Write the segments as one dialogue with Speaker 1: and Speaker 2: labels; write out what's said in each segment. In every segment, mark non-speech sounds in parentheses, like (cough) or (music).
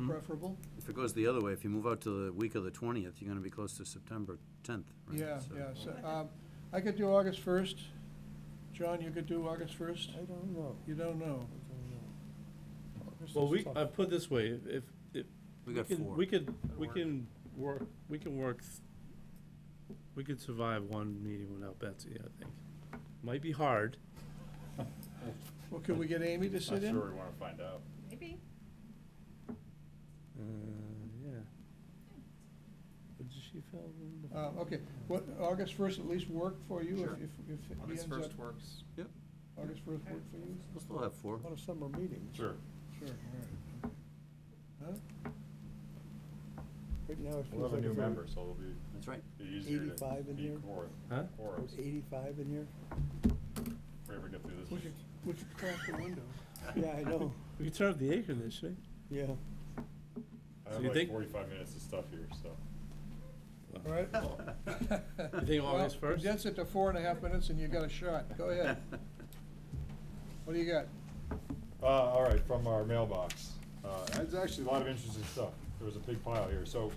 Speaker 1: Mm-hmm.
Speaker 2: preferable.
Speaker 3: If it goes the other way, if you move out to the week of the 20th, you're going to be close to September 10th, right?
Speaker 2: Yeah,
Speaker 3: So-
Speaker 2: yeah, so, um, I could do August first. John, you could do August first?
Speaker 4: I don't know.
Speaker 2: You don't know.
Speaker 4: I don't know. August
Speaker 5: Well,
Speaker 4: is
Speaker 5: we,
Speaker 1: uh,
Speaker 4: tough.
Speaker 5: I put this way, if, if.
Speaker 3: We got
Speaker 5: can-
Speaker 3: four.
Speaker 5: We could, we
Speaker 3: work.
Speaker 5: can work, we can work, th- we could survive one meeting without Betsy, I think. Might be hard.
Speaker 2: Well, could we get Amy to
Speaker 1: Not
Speaker 2: sit
Speaker 1: sure we
Speaker 2: in?
Speaker 1: want to find out.
Speaker 6: Maybe.
Speaker 5: Uh, yeah. But she fell in the.
Speaker 2: Uh, okay, what, August first at least work for you
Speaker 3: Sure.
Speaker 2: if, if, if he ends
Speaker 1: August
Speaker 2: up?
Speaker 1: first works.
Speaker 2: August first work for you?
Speaker 3: We'll still have four.
Speaker 4: A lot of summer meetings.
Speaker 1: Sure.
Speaker 2: Sure, all right.
Speaker 4: Right now, it
Speaker 1: We'll
Speaker 4: feels
Speaker 1: have a
Speaker 4: like
Speaker 1: new
Speaker 4: it's only
Speaker 1: member, so it'll be
Speaker 3: That's right.
Speaker 1: be easier to
Speaker 4: 85 in
Speaker 1: be
Speaker 4: here?
Speaker 1: quor-
Speaker 5: Huh?
Speaker 1: quorum
Speaker 4: there's eighty-five in here.
Speaker 1: if we ever get through this.
Speaker 2: We could, we could crack the window.
Speaker 4: Yeah, I know,
Speaker 5: We could turn up the air conditioning.
Speaker 4: yeah.
Speaker 1: I
Speaker 5: So
Speaker 1: have
Speaker 5: you
Speaker 1: like
Speaker 5: think-
Speaker 1: forty-five minutes of stuff here, so.
Speaker 2: All right?
Speaker 1: (laughs)
Speaker 2: (laughs)
Speaker 5: You think August
Speaker 2: Well,
Speaker 5: first?
Speaker 2: Condense it to four and a half minutes and you got a shot. Go ahead. What do you got?
Speaker 1: Uh, all right, from our mailbox. Uh, it's actually a lot of interesting stuff. There was a big pile here. So,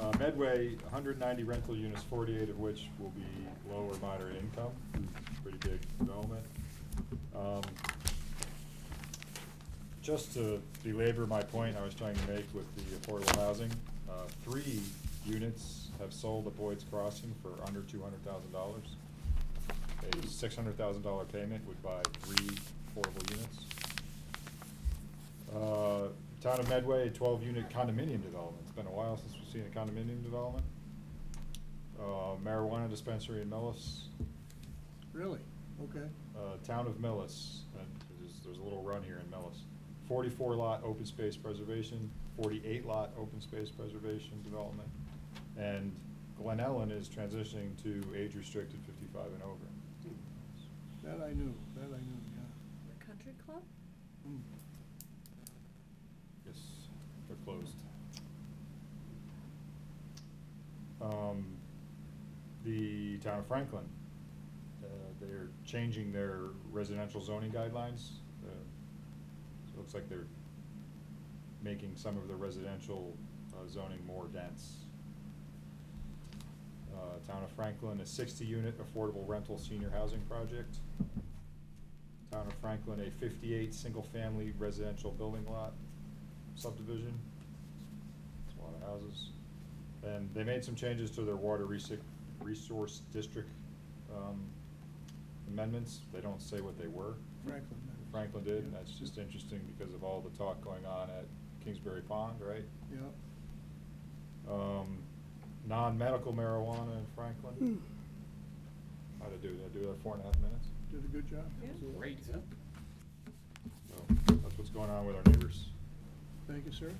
Speaker 1: uh, Medway, hundred ninety rental units, forty-eight of which will be low or moderate income. Pretty big development. Um, just to belabor my point I was trying to make with the affordable housing, uh, three units have sold at Boyd's Crossing for under two hundred thousand dollars. A six hundred thousand dollar payment would buy three affordable units. Uh, Town of Medway, a twelve-unit condominium development. It's been a while since we've seen a condominium development. Uh, marijuana dispensary in Millis,
Speaker 2: Really? Okay.
Speaker 1: uh, town of Millis, uh, there's, there's a little run here in Millis. Forty-four lot open space preservation, forty-eight lot open space preservation development. And Glen Ellen is transitioning to age-restricted fifty-five and over.
Speaker 2: That I knew, that I knew, yeah.
Speaker 6: The country club?
Speaker 2: Hmm.
Speaker 1: Yes, they're closed. Um, the town of Franklin, uh, they're changing their residential zoning guidelines. uh, So it looks like they're making some of the residential uh, zoning more dense. Uh, town of Franklin, a sixty-unit affordable rental senior housing project. Town of Franklin, a fifty-eight single-family residential building lot subdivision. It's a lot of houses. And they made some changes to their water resi- resource district um, amendments. They don't say what they were.
Speaker 2: Franklin. that is.
Speaker 1: Franklin did, and
Speaker 2: Yeah.
Speaker 1: that's just interesting because of all the talk going on at Kingsbury Pond, right?
Speaker 2: Yeah,
Speaker 1: Um, non-medical marijuana in Franklin. How'd I do? Did I do that four and a half minutes?
Speaker 2: did a good job.
Speaker 6: Yeah.
Speaker 3: Great.
Speaker 1: So that's what's going on with our neighbors.
Speaker 2: Thank you, sir.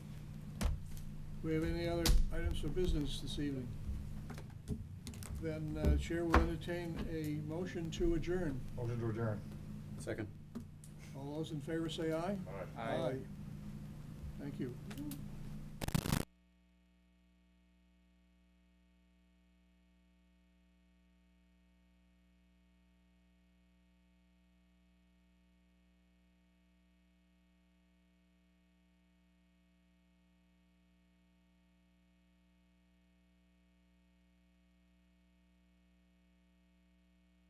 Speaker 2: We have any other items for business this evening? Then uh, Chair will entertain a motion to adjourn.
Speaker 1: Motion to adjourn.
Speaker 3: Second.
Speaker 2: All those in favor say aye.
Speaker 1: All right.
Speaker 2: Thank you.